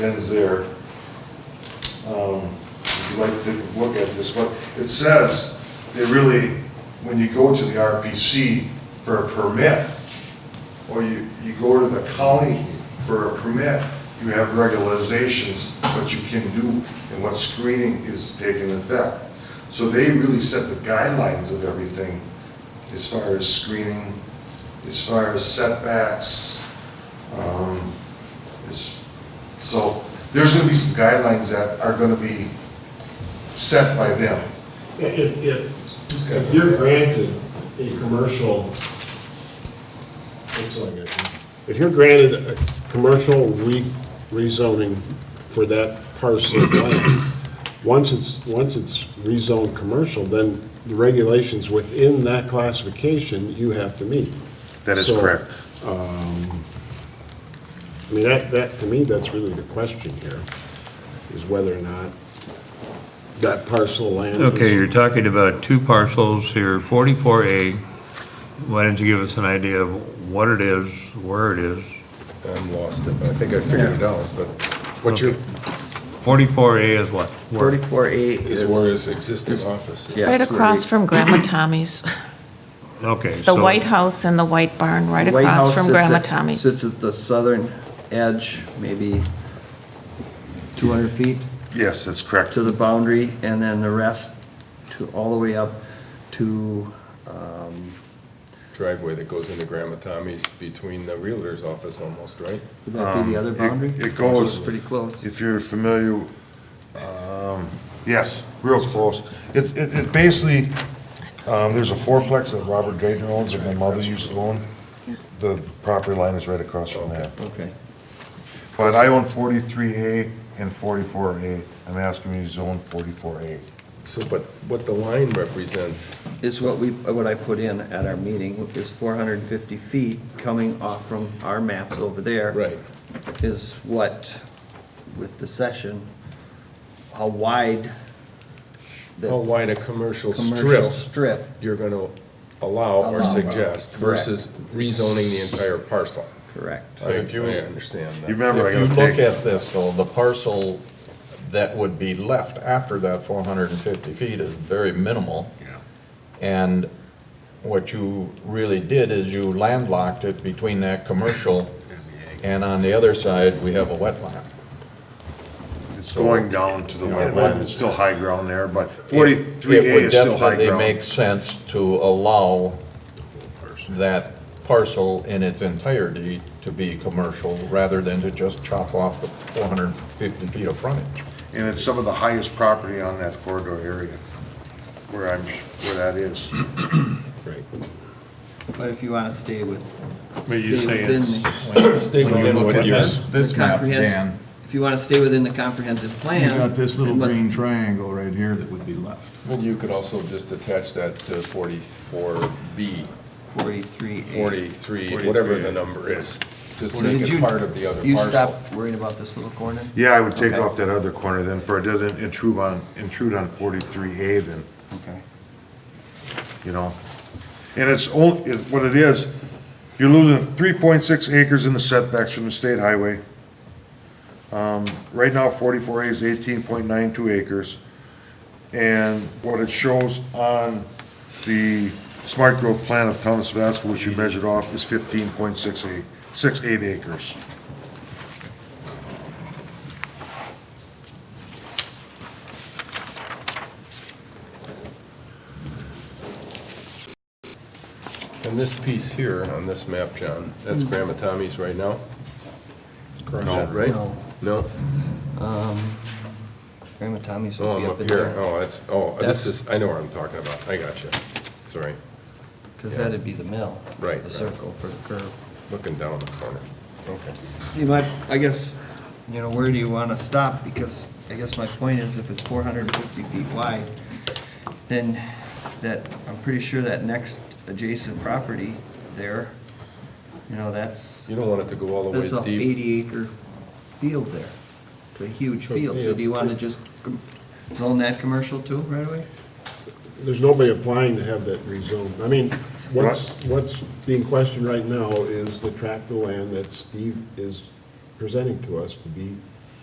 ends there. Um, If you'd like to take a look at this, but it says, they really, when you go to the RPC for a permit, or you, you go to the county for a permit, you have regularizations, what you can do and what screening is taking effect. So they really set the guidelines of everything as far as screening, as far as setbacks, um, is, so there's gonna be some guidelines that are gonna be set by them. If, if, if you're granted a commercial, that's all I got. if you're granted a commercial re- rezoning for that parcel of land, once it's, once it's rezoned commercial, then the regulations within that classification you have to meet. That is So, um, correct. I mean, that, that, to me, that's really the question here, is whether or not that parcel of land. is- Okay, you're talking about two parcels here, 44A. Why don't you give us an idea of what it is, where it is? I'm lost, but I think I figured it out, but. What you're, 44A is what? Where? 44A Is where his existing office is. Yeah. Right Yes, where across we- from Grandma Tommy's. Okay. The so- White House and the White Barn, right White House across from sits Grandma at- Tommy's. Sits at the southern edge, maybe 200 feet Yes, that's correct. to the boundary, and then the rest to, all the way up to, um, Driveway that goes into Grandma Tommy's between the Realtor's office almost, right? would that be the other Um, it- boundary? it goes- It's Pretty close. If you're familiar, um, yes, real close. It's, it- it's basically, um, there's a fourplex that Robert Gaitner owns that my mother used to own. The property line is right across from that. Okay. But I own forty-three A and forty-four A. I'm asking you to zone forty-four A. So, but what the line represents, Is what we, what I put in at our meeting, is 450 feet coming off from our maps over there. right, is what, with the session, how wide how Oh, the wide a commercial commercial strip strip, you're gonna allow or Allow. suggest versus rezoning the entire parcel. correct? I, I understand You that. remember, I If you gotta look take, at this, though, the parcel that would be left after that 450 feet is very minimal. And what you really did is you landlocked it between that commercial, and on the other side, we have a wetland. it's going down to the Yeah. wetland, it's still high ground there, but forty-three A It would is still high definitely make ground. sense to allow that parcel in its entirety to be commercial, rather than to just chop off the 450 feet of frontage. And it's some of the highest property on that corridor area, where I'm, where that is. Right. But if you want to stay with, But stay you say within, it's- the- Stay When you within look what at you're- this, this The map, comprehensive- Dan, if you want to stay within the comprehensive you plan. got this little and what- green triangle right here that would be left. Well, you could also just attach that to 44B, Forty-three. A. 43, whatever the number is. Just Well, make did you- it part of the other You parcel. stop worrying about this little corner? Yeah, I would take Okay. off that other corner then, for it doesn't intrude on, intrude on forty-three A then, Okay. you know? And it's on, it, what it is, you're losing three point six acres in the setbacks from the state highway. Um, right now, forty-four A is eighteen point nine two acres. And what it shows on the smart growth plan of Thomas Vasco, which you measured off, is fifteen point six eight, six eight acres. And this piece here on this map, John, that's Grandma Tommy's right now? Is that right? No. No? Um, Grandma Tommy's Oh, will be I'm up up in here. there. Oh, that's, oh, That's- this is, I know what I'm talking about. I got you. Sorry, Because that'd be the mill. Right, The right. circle for the curve. looking down the corner. Okay. See, my, I guess, you know, where do you want to stop? Because I guess my point is if it's four hundred and fifty feet wide, then that, I'm pretty sure that next adjacent property there, you know, that's, You don't want it to go all the way that's deep. a eighty acre field there. It's a huge field, so do you want to just com- zone that commercial too right away? There's nobody applying to have that rezoned. I mean, what's, what's being questioned right now is the tract of land that Steve is presenting to us to be